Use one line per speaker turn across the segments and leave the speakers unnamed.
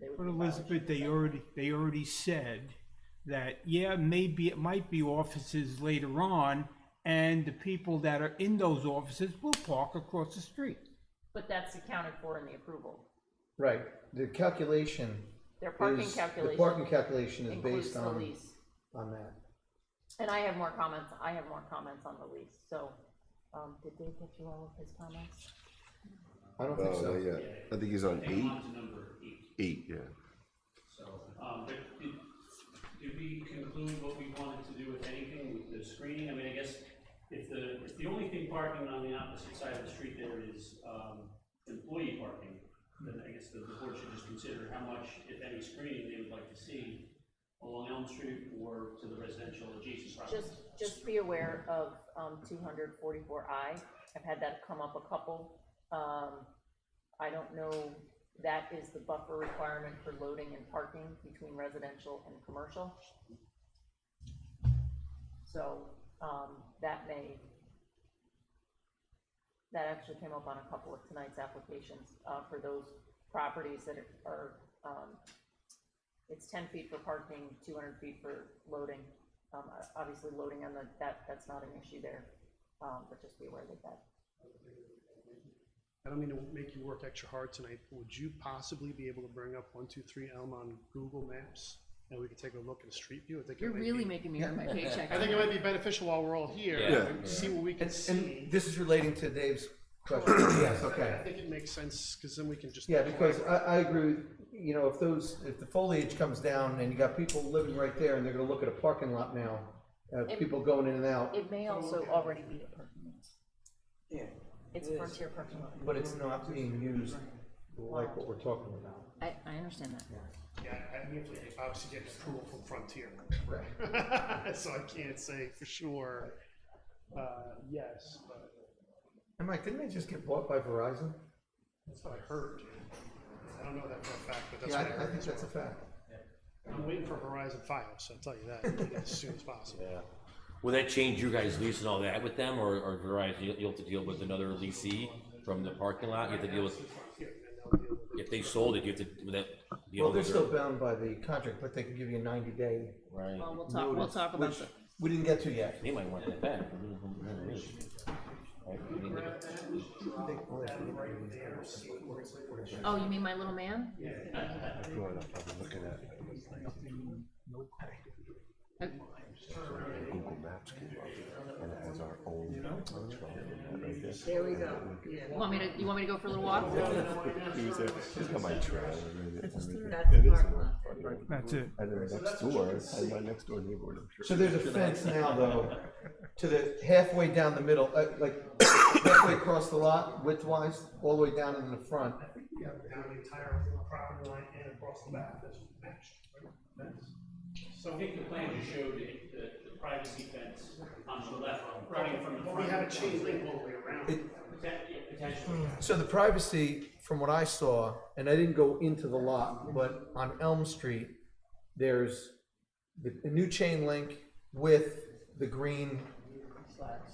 with
But
the
Elizabeth,
vouchers.
they already, they already said that, yeah, maybe, it might be offices later on, and the people that are in those offices will park across the street.
But that's accounted for in the approval.
Right, the calculation
Their parking
is, the
calculation
parking calculation is
includes
based
the
on,
lease.
on that.
And I have more comments, I have more comments on the lease, so, um, did Dave get you all of his comments?
I don't think
Oh,
so.
yeah, I think he's on
Hang
eight,
on to number eight,
eight, yeah.
so, um, but did, did we conclude what we wanted to do with anything with the screening? I mean, I guess if the, if the only thing parking on the opposite side of the street there is, um, employee parking, then I guess the the board should just consider how much, if any, screening they would like to see along Elm Street or to the residential adjacent properties.
Just, just be aware of, um, two hundred forty-four I, I've had that come up a couple, um, I don't know, that is the buffer requirement for loading and parking between residential and commercial. So, um, that may, that actually came up on a couple of tonight's applications, uh, for those properties that are, um, it's ten feet for parking, two hundred feet for loading. Um, uh, obviously loading on the, that, that's not an issue there, um, but just be aware of that.
I don't mean to make you work extra hard tonight, but would you possibly be able to bring up one, two, three Elm on Google Maps? And we could take a look at a street view, I think it
You're
might
really
be,
making me earn my paycheck.
I think it might be beneficial while we're all here,
Yeah.
and see what we can
And,
see.
and this is relating to Dave's question, yes,
I
okay.
think it makes sense, cause then we can just.
Yeah, because I, I agree, with you know, if those, if the foliage comes down and you got people living right there and they're gonna look at a parking lot now, uh, people going in and out,
It may also already be a parking lot. Yeah. It's a frontier parking lot.
but it's not being used like what we're talking about.
I, I understand that.
Yeah, I need to obviously get approval from Frontier,
Right.
so I can't say for sure, uh, yes, but
And Mike, didn't they just get bought by Verizon?
that's what I heard. I don't know that for a fact, but that's
Yeah,
what
I,
I
I
heard.
think that's a fact.
I'm waiting for Horizon Five, so I'll tell you that as soon as possible.
Will that change you guys' lease and all that with them, or, or Verizon, you'll, you'll have to deal with another leasee from the parking lot, you have to deal with, if they sold it, you have to, would that be
Well,
over
they're
there?
still bound by the contract, but they can give you a ninety day
Right,
Well, we'll talk, we'll
notice,
talk about
which
that.
we didn't get to yet.
they might want that back. Right, I mean,
Oh, you mean my little man?
Going up, I've been looking at it,
Uh,
and Google Maps came up, and it has our own. control on that right there.
There we go, yeah.
You want me to, you want me to go for a little walk?
He was there, he's got my trailer and everything.
That's the
It is
parking
a-
lot.
That's it.
And then next door, and my next door neighbor, I'm sure.
So there's a fence now, though, to the halfway down the middle, uh, like halfway across the lot, widthwise, all the way down in the front.
Down the entire property line and across the back, that's matched.
So I think the plan you showed, it- the, the privacy fence on the left, running from the front.
We have a chain link all the way around.
Potent- yeah, Potentially,
So the privacy, from what I saw, and I didn't go into the lot, but on Elm Street, there's the a new chain link with the green,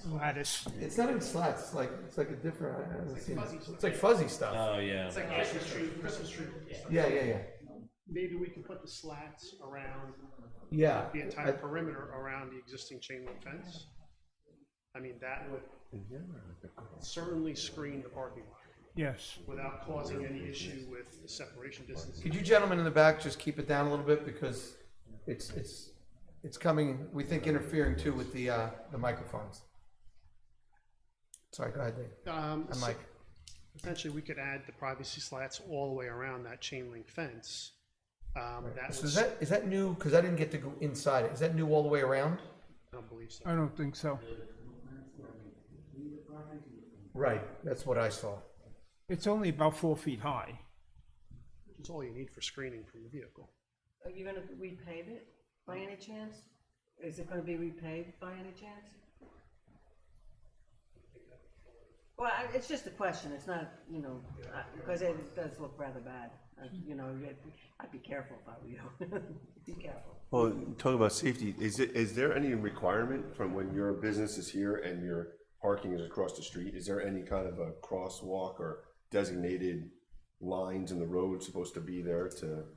Lattice.
it's not even slats, it's like, it's like a different, I haven't seen, it. it's like fuzzy stuff.
Oh, yeah,
It's like Christmas tree, Christmas tree.
Yeah, yeah, yeah,
Maybe we can put the slats around
yeah.
the entire
I-
perimeter around the existing chain link fence. I mean, that would certainly screen the parking lot
Yes.
without causing any issue with the separation distance.
Could you gentlemen in the back just keep it down a little bit because it's, it's, it's coming, we think interfering too with the, uh, the microphones. Sorry, go ahead, Dave.
Um,
I'm
so-
like,
Potentially, we could add the privacy slats all the way around that chain link fence. Um, that
so
would
is that, is that new? Cause I didn't get to go inside it. Is that new all the way around?
I don't believe so.
I don't think so.
Right, that's what I saw.
It's only about four feet high.
It's all you need for screening from the vehicle.
Are you gonna repave it by any chance? Is it gonna be repaved by any chance? Well, I- it's just a question, it's not, you know, I- because it does look rather bad, Uh, you know, I'd be- I'd be careful if I were you, be careful.
Well, talking about safety, is it, is there any requirement from when your business is here and your parking is across the street? Is there any kind of a crosswalk or designated lines in the road supposed to be there to?